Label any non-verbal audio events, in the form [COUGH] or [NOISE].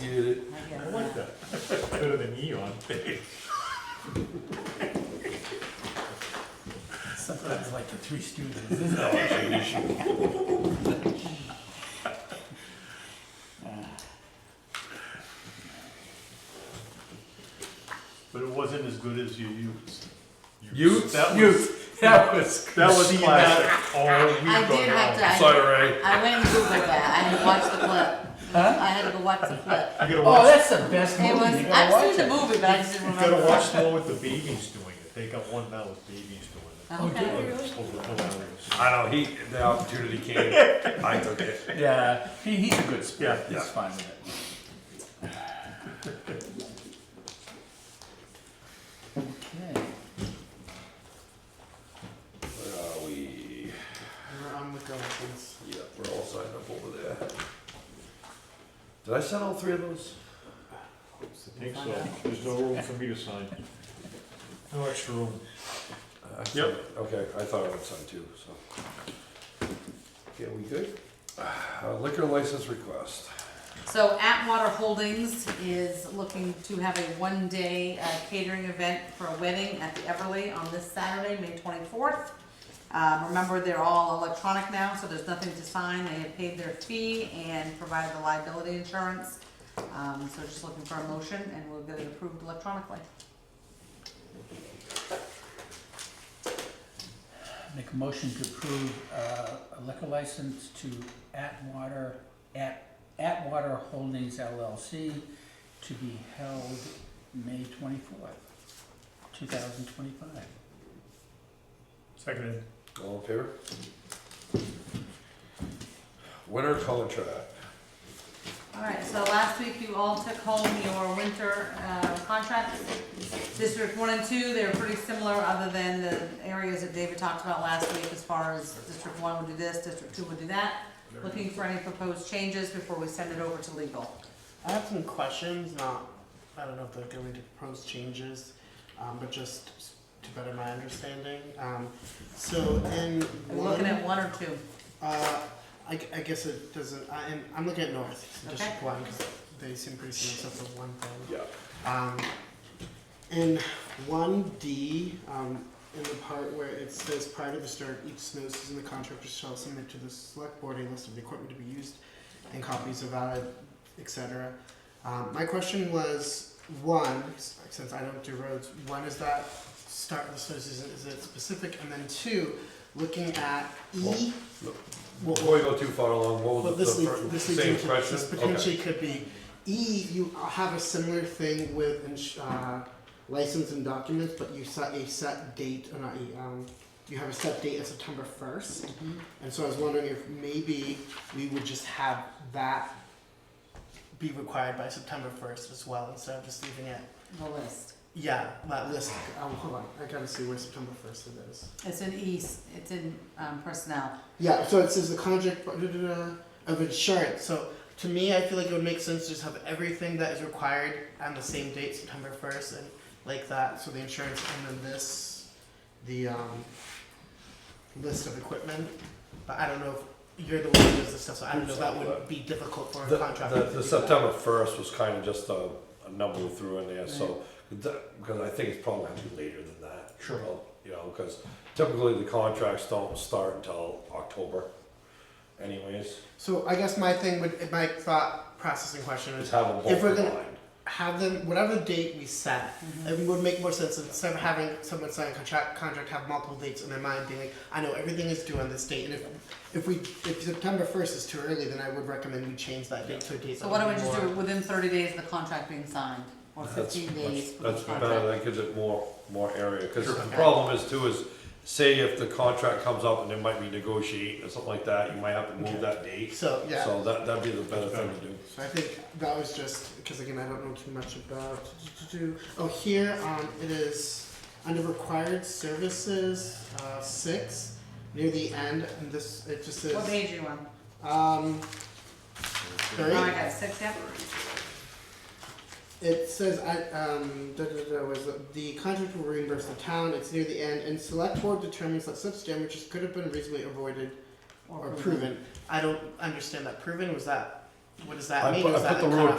did it. I guess not. Could have been neon. Sometimes like the three students, this is always an issue. But it wasn't as good as you used. Utes? That was- Youth, [LAUGHS] that was. That was Seeing classic. Oh, All week I did have to, I, Sorry, Ray. I went and Googled that, I had to watch the clip. Huh? I had to go watch the clip. I gotta Oh, watch, that's the best movie. It You was, gotta I've watch seen the it. movie, but I just didn't you remember. gotta watch the one with the babies doing it. They got one now with babies doing Okay. did it. It's hilarious. I know, he, the opportunity came, I took it. Yeah, he, he's a good sport, Yeah. he's fine with it. Okay. Where are we? We're on the Dolphins. Yeah, we're all signed up over there. Did I send all three of those? I think so. There's no room for me to sign. No extra room. Uh, I sent- Yep. Okay, I thought I would sign two, so. Okay, we good? Uh, Liquor license request. So Atwater Holdings is looking to have a one-day uh, catering event for a wedding at the Everly on this Saturday, May twenty-fourth. Uh, remember, they're all electronic now, so there's nothing to sign, they have paid their fee and provided the liability insurance. Um, so just looking for a motion and we'll get it approved electronically. Make a motion to approve uh, a liquor license to Atwater, At Atwater Holdings LLC to be held May twenty-fourth, two thousand twenty-five. Seconded. All in favor? Winter contract. All right, so last week you all took home your winter uh, contracts. District one and two, they're pretty similar, other than the areas that David talked about last week as far as district one would do this, district two would do that. Looking for any proposed changes before we send it over to legal. I have some questions, not, I don't know if they're going to propose changes, um, but just to better my understanding. Um, so in Are we looking at one one, or two? uh, I, gu- I guess it doesn't, I, am I'm looking at North, so District Okay. One, 'cause they seem pretty similar except for one thing. Yeah. Um, in one D, um, in the part where it says prior to the start, each snow season, the contractor shall submit to the select board a list of the equipment to be used and copies of valid, et cetera. Um, my question was, one, s- since I don't do roads, when is that start of the snow season, is it specific? And then two, looking at E. What- Before we go too far along, what well, was the this leads, fir- this leads same into, question? this Okay. potentially could be, E, you have a similar thing with, ins- uh, license and documents, but you set a set date, uh, not E, um, you have a set date of September first, and so I was wondering if maybe we would just have that be required by September first as well, instead of just leaving it, The list. yeah, that list, um, hold on, I gotta see where September first it is. It's in east, it's in um, personnel. Yeah, so it says the contract blah, da, da, da, of insurance. So to me, I feel like it would make sense to just have everything that is required on the same date, September first, and like that. So the insurance, and then this, the um, list of equipment. But I don't know if you're the one who does this stuff, so I don't know if that would be difficult for The, a contractor. the, to the do September first was kind of just a, a number we threw in there, so, that- because I think it's probably gonna be later than that. Sure. You know, because typically the contracts don't start until October anyways, that. So I guess my thing would, my thought processing question is just have them If both we're in gonna- mind. have them whatever date we set. Mm-hmm. It would make more sense instead of having someone sign a contract contract have multiple dates in their mind, being like, I know everything is due on this date, and if if we if September first is too early, then I would recommend we change that date to a date. So that why don't would we be just do more- it within thirty days of the contract being signed, or That's- fifteen days that's- for the That's contract? better, that gives it more, more area, because the Okay. problem is too is, say if the contract comes up and there might be negotiating or something like that, you might have to move that date. So yeah. So, So that, that'd be the better thing to do. I think that was just because again I don't know too much about. Oh here um it is under required services uh, six near the end and this it just says What page are you on? um. Oh, I Thirty. got six, yep. It says, I, um, da, da, da, was the, the contract will reimburse the town, it's near the end, and select board determines that such damages could have been reasonably avoided or proven. I don't understand that, proven, was that, what does that I mean? put- Is I put that the a word cutoff?